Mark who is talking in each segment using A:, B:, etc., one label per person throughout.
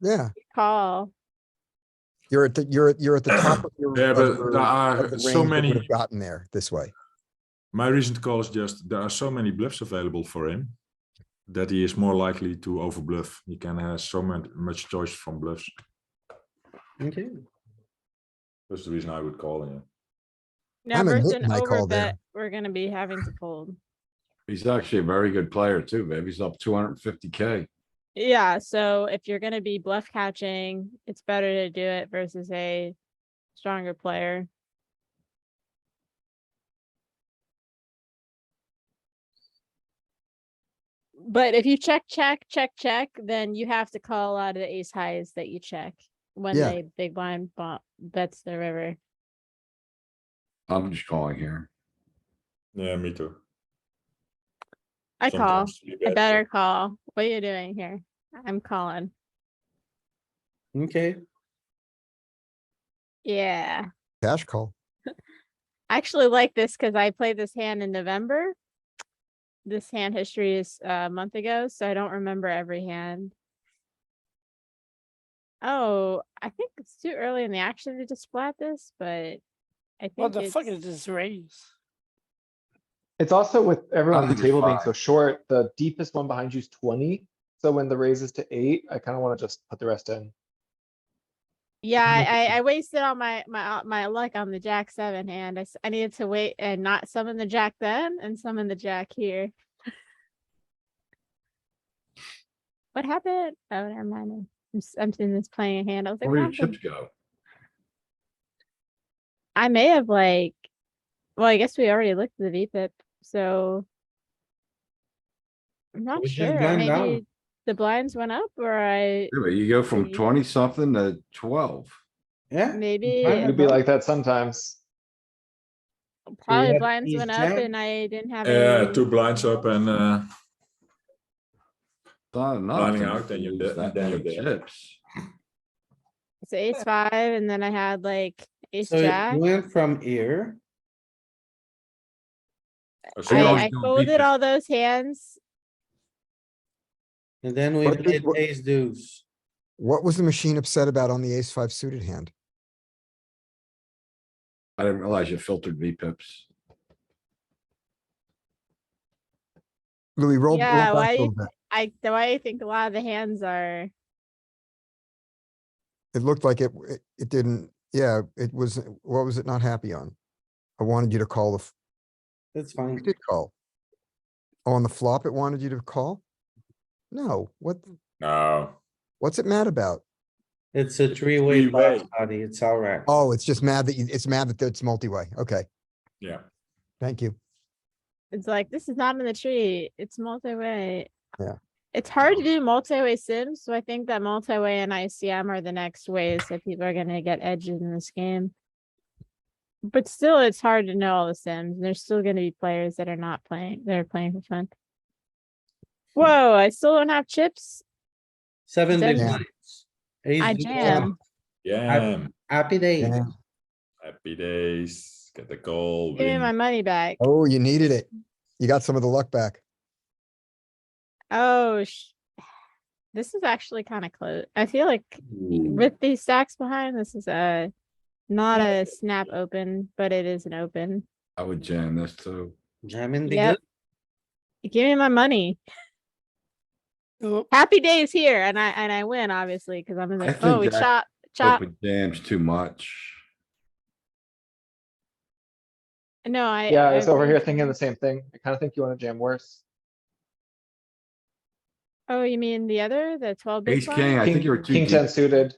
A: Yeah,
B: call.
A: you're at the, you're, at- you're at the top of your.
C: Yeah,
A: of
C: but
A: your-
C: there
A: of
C: are
A: the
C: so
A: range that
C: many.
A: would have Gotten there this way.
C: My recent call is just there are so many bluffs available for him that he is more likely to overbluff. He can have so much, much choice from bluffs.
D: Okay,
C: That's the reason I would call him.
B: Now
A: I'm a
B: versus
A: nit
B: an
A: in my call
B: overbet,
A: there.
B: we're gonna be having to fold.
E: He's actually a very good player too, baby. He's up two hundred and fifty K.
B: Yeah, so if you're gonna be bluff catching, it's better to do it versus a stronger player. But if you check, check, check, check, then you have to call out of the ace highs that you check when
A: Yeah.
B: they big blind bo- bets the river.
E: I'm just calling here.
C: Yeah, me too.
B: I call. I better call. What are you doing here? I'm calling.
D: okay.
B: Yeah.
A: Cash call.
B: I actually like this because I played this hand in November. This hand history is uh, a month ago, so I don't remember every hand. Oh, I think it's too early in the action to just flat this, but I think.
F: What the fuck
B: it's-
F: is this raise?
D: It's also with everyone at the
E: think it's
D: table being
E: fine.
D: so short, the deepest one behind you is twenty. So when the raise is to eight, I kinda wanna just put the rest in.
B: Yeah,
D: Look at
B: I, I- I wasted all my, my, uh, my luck on the jack seven hand. I, s- I needed to wait and not summon the jack then and summon the jack here. What happened? Oh, never mind. I'm, s- I'm sitting this playing a hand. I was like,
E: Where
B: "What
E: do your
B: happened?"
E: chips go?
B: I may have like, well, I guess we already looked at the VPIP, so. I'm not
D: was just
B: sure.
D: going down.
B: Maybe the blinds went up or I,
E: Yeah, but You go from
B: See?
E: twenty something to twelve.
G: Yeah.
B: maybe.
D: It
B: a
D: could be
B: blin-
D: like that sometimes.
B: Probably
G: had
B: blinds
G: ace
B: went up
G: jack.
B: and I didn't have.
C: Yeah,
B: any-
C: two blinds up and uh,
E: It's Not enough.
C: Lining
E: to
C: out, then you're
E: lose
C: dead-
E: that
C: then you're
E: many
C: dead.
E: chips.
B: So ace five, and then I had like ace
G: So
B: jack.
G: it went from here.
E: So you
B: I,
E: always
B: I
E: do a
B: folded
E: beat.
B: all those hands.
G: And then we
A: But this
G: played
A: wa-
G: ace deuce.
A: What was the machine upset about on the ace five suited hand?
E: I didn't realize you filtered V pips.
A: Louis, roll. roll
B: Yeah,
A: back
B: why
A: a
B: do you-
A: little bit.
B: I the way I think a lot of the hands are.
A: It looked like it, it- it didn't, yeah, it was, what was it not happy on? I wanted you to call the, f-
G: That's
A: we
G: fine.
A: did call. On the flop, it wanted you to call? No, what,
C: no.
A: what's it mad about?
G: It's a three-way
C: three-way.
G: pot, buddy. It's all right.
A: Oh, it's just mad that you, it's mad that it's multi-way. Okay,
C: Yeah.
A: thank you.
B: It's like this is not in the tree. It's multi-way.
A: Yeah.
B: It's hard to do multi-way sims, so I think that multi-way and ICM are the next ways that people are gonna get edges in this game. But still, it's hard to know all the sims. and There's still gonna be players that are not playing. They're playing for fun. Whoa! I still don't have chips.
G: Seven big
B: Yeah.
G: blinds. Ace
B: I
G: deuce off.
B: jam.
C: Yeah.
G: Happy day.
A: Yeah.
C: Happy days. Get the goal.
B: Give me
C: win.
B: my money back.
A: Oh, you needed it. You got some of the luck back.
B: Oh, sh- this is actually kind of close. I feel like
D: Mm-hmm.
B: with these stacks behind, this is a not a snap open, but it is an open.
E: I would jam this too.
G: Jamming the
B: Yep.
G: good.
B: Give me my money.
F: Oh,
B: Happy days here, and I and I win obviously because I'm in
E: I
B: the.
E: think
B: Oh, we
E: that-
B: chop chop.
E: Open jams too much.
B: No, I.
D: Yeah, I was over
B: agree.
D: here thinking the same thing. I kinda think you wanna jam worse.
B: Oh, you mean the other, the twelve big
E: Ace king,
B: blind?
E: I think you were too
D: King
E: deep.
D: ten suited.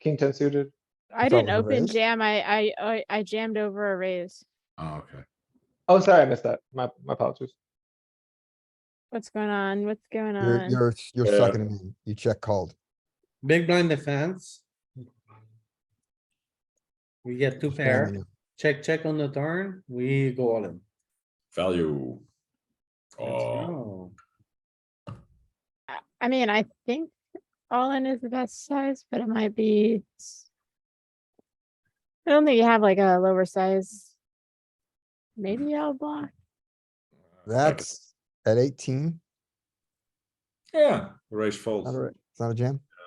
D: King ten suited.
B: I
A: I thought it
B: didn't
A: was a
B: open
A: raise.
B: jam. I I I- I jammed over a raise.
E: Oh, okay.
D: Oh, sorry, I missed that. My, my apologies.
B: What's going on? What's going
A: You're,
B: on?
A: you're, you're
C: Yeah.
A: sucking it in. You check called.
G: Big blind defense. We get two pair.
A: Jamming it.
G: Check, check on the turn. We go all in.
C: Value.
G: Let's
C: Oh,
G: go.
B: I- I mean, I think all in is the best size, but it might be. s- I don't think you have like a lower size. Maybe I'll block.
A: That's at eighteen,
C: yeah. Raise fold.
A: not a, it's not a jam.